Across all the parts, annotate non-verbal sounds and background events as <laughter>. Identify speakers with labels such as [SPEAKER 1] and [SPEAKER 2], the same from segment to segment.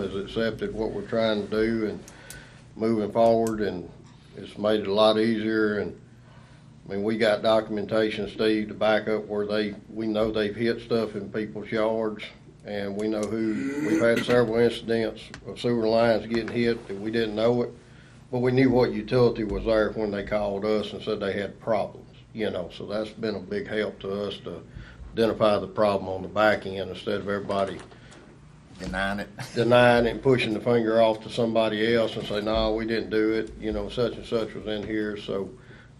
[SPEAKER 1] has accepted what we're trying to do and moving forward, and it's made it a lot easier, and, I mean, we got documentation, Steve, to back up where they, we know they've hit stuff in people's yards, and we know who, we've had several incidents of sewer lines getting hit that we didn't know it, but we knew what utility was there when they called us and said they had problems, you know, so that's been a big help to us to identify the problem on the back end instead of everybody
[SPEAKER 2] denying it.
[SPEAKER 1] denying it and pushing the finger off to somebody else and say, no, we didn't do it, you know, such and such was in here, so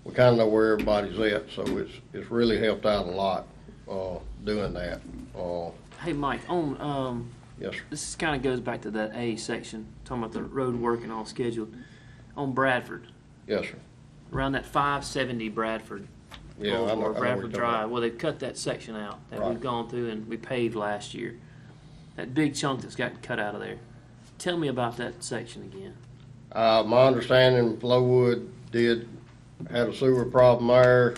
[SPEAKER 1] we kinda know where everybody's at, so it's, it's really helped out a lot, uh, doing that, uh,
[SPEAKER 3] Hey, Mike, on, um,
[SPEAKER 1] yes, sir.
[SPEAKER 3] this kind of goes back to that A section, talking about the road work and all scheduled. On Bradford,
[SPEAKER 1] yes, sir.
[SPEAKER 3] around that five seventy Bradford.
[SPEAKER 1] Yeah, I know- I know
[SPEAKER 3] Boulevard,
[SPEAKER 1] what you're
[SPEAKER 3] Bradford
[SPEAKER 1] talking
[SPEAKER 3] Drive,
[SPEAKER 1] about.
[SPEAKER 3] well, they've cut that section out that we've
[SPEAKER 1] Right.
[SPEAKER 3] gone through and we paved last year. That big chunk that's gotten cut out of there. Tell me about that section again.
[SPEAKER 1] Uh, my understanding, Flowwood did, had a sewer problem there.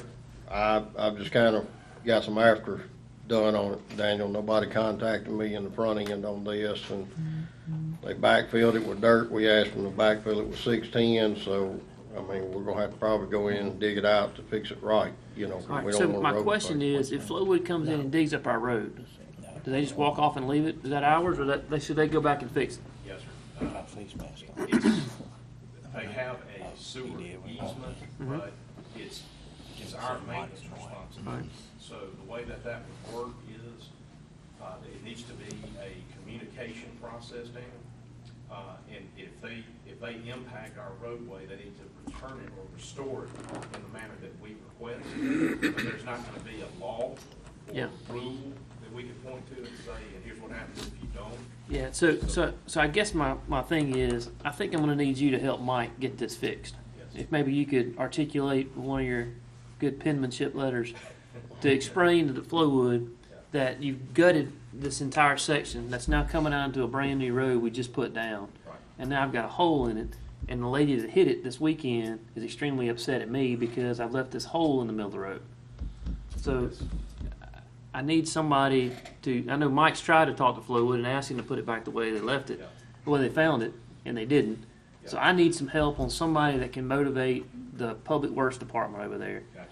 [SPEAKER 1] I, I've just kind of got some after done on it, Daniel. Nobody contacted me in the front end on this, and they backfilled it with dirt. We asked them to backfill it with six-ten, so, I mean, we're gonna have to probably go in and dig it out to fix it right, you know. 'cause we
[SPEAKER 3] All right,
[SPEAKER 1] don't
[SPEAKER 3] so
[SPEAKER 1] want
[SPEAKER 3] my
[SPEAKER 1] road
[SPEAKER 3] question
[SPEAKER 1] fixed.
[SPEAKER 3] is, if Flowwood comes in and digs up our road, <laughs> do they just walk off and leave it? Is that ours or that, they- should they go back and fix it?
[SPEAKER 4] Yes, sir. Uh, They have a sewer easement, but it's, it's our maintenance responsibility. So the way that that would work is, uh, it needs to be a communication process, Dan. Uh, and if they, if they impact our roadway, they need to return it or restore it in the manner that we request. But there's not gonna be a law
[SPEAKER 3] Yeah.
[SPEAKER 4] or rule that we can point to and say, and here's what happens if you don't.
[SPEAKER 3] Yeah, so, so, so I guess my, my thing is, I think I'm gonna need you to help Mike get this fixed.
[SPEAKER 4] Yes.
[SPEAKER 3] If maybe you could articulate with one of your good penmanship letters to explain to the Flowwood that you've gutted this entire section that's now coming out into a brand new road we just put down.
[SPEAKER 4] Right.
[SPEAKER 3] And now I've got a hole in it, and the lady that hit it this weekend is extremely upset at me because I've left this hole in the middle of the road. So I need somebody to, I know Mike's tried to talk to Flowwood and ask him to put it back the way they left it,
[SPEAKER 4] Yeah.
[SPEAKER 3] the way they found it, and they didn't. So I need some help on somebody that can motivate the public works department over there
[SPEAKER 4] Gotcha.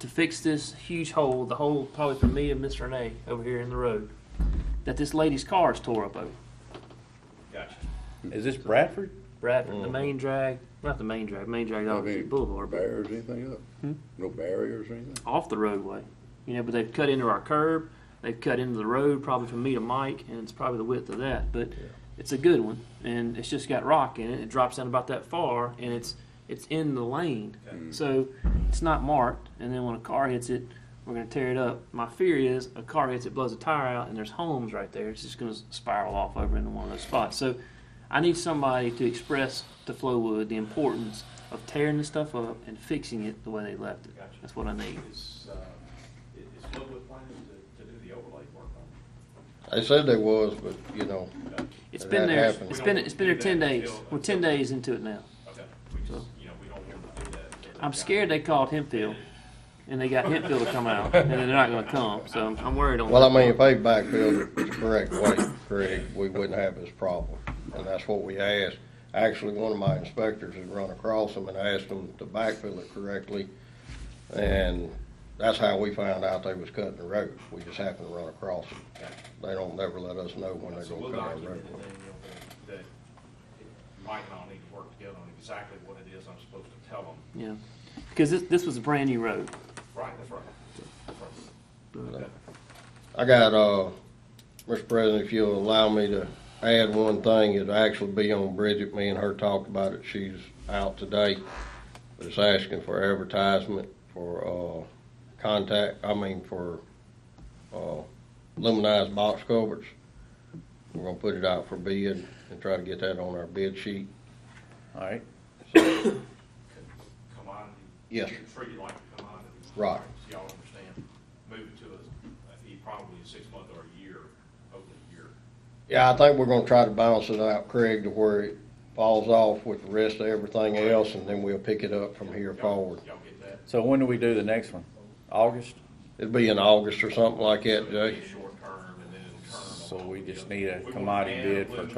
[SPEAKER 3] to fix this huge hole, the hole probably for me and Miss Renee over here in the road, that this lady's car is tore up over.
[SPEAKER 4] Gotcha.
[SPEAKER 5] Is this Bradford?
[SPEAKER 3] Bradford, the main drag, not the main drag, main drag off
[SPEAKER 6] Any
[SPEAKER 3] Boulevard, but
[SPEAKER 6] Barriers, anything up?
[SPEAKER 5] Hmm?
[SPEAKER 6] No barriers or anything?
[SPEAKER 3] off the roadway. You know, but they've cut into our curb, they've cut into the road, probably from me to Mike, and it's probably the width of that. But it's a good one, and it's just got rock in it. It drops down about that far, and it's it's in the lane, so it's not marked. And then when a car hits it, we're gonna tear it up. My fear is a car hits it, blows a tire out, and there's homes right there. It's just gonna spiral off over into one of those spots. So I need somebody to express to Flowwood the importance of tearing the stuff up and fixing it the way they left it.
[SPEAKER 4] Gotcha.
[SPEAKER 3] That's what I need.
[SPEAKER 4] Is, uh, i- is Flowood planning to, to do the overlay work on
[SPEAKER 1] They said they was, but, you know,
[SPEAKER 4] it? Okay,
[SPEAKER 3] It's
[SPEAKER 1] That
[SPEAKER 3] been there.
[SPEAKER 1] happened.
[SPEAKER 3] It's been it's been there ten days. We're ten days into it now.
[SPEAKER 4] Okay, we just, you know, we don't want to do that. until
[SPEAKER 3] I'm
[SPEAKER 4] they've
[SPEAKER 3] scared they called Hempfield, and they got Hempfield to come out, and they're not going to come. So I'm, I'm worried on.
[SPEAKER 1] well, I mean, if they backfilled it the correct way, Craig, we wouldn't have this problem, and that's what we asked. Actually, one of my inspectors had run across them and asked them to backfill it correctly, and that's how we found out they was cutting the road. We just happened to run across them. They don't never let us know when
[SPEAKER 4] got
[SPEAKER 1] they're
[SPEAKER 4] it. So
[SPEAKER 1] gonna
[SPEAKER 4] we'll
[SPEAKER 1] cut our road.
[SPEAKER 4] document it, Daniel, that- that Mike and I need to work together on exactly what it is I'm supposed to tell them.
[SPEAKER 3] Yeah, because this this was a brand new road.
[SPEAKER 4] Right, that's right. That's right. Okay.
[SPEAKER 1] I got, uh, Mr. President, if you'll allow me to add one thing, it'll actually be on Bridget, me and her talked about it, she's out today. But it's asking for advertisement for, uh, contact, I mean, for, uh, aluminized box covers. We're gonna put it out for bid and try to get that on our bid sheet.
[SPEAKER 5] All right.
[SPEAKER 4] Commodity.
[SPEAKER 1] Yes.
[SPEAKER 4] you Treat it like a commodity.
[SPEAKER 1] Right.
[SPEAKER 4] So Y'all understand, move it to a, a- probably a six month or a year, hopefully a year.
[SPEAKER 1] Yeah, I think we're gonna try to balance it out, Craig, to where it falls off with the rest of everything else, and then we'll pick it up from here
[SPEAKER 4] Y'all-
[SPEAKER 1] forward.
[SPEAKER 4] Y'all get that?
[SPEAKER 5] So when do we do the next one? August?
[SPEAKER 1] It'd be in August or something like that, Jay.
[SPEAKER 4] Short term and then it'll turn.
[SPEAKER 5] So we just need a
[SPEAKER 4] We want
[SPEAKER 5] commodity
[SPEAKER 4] to ban
[SPEAKER 5] bid for
[SPEAKER 4] aluminum.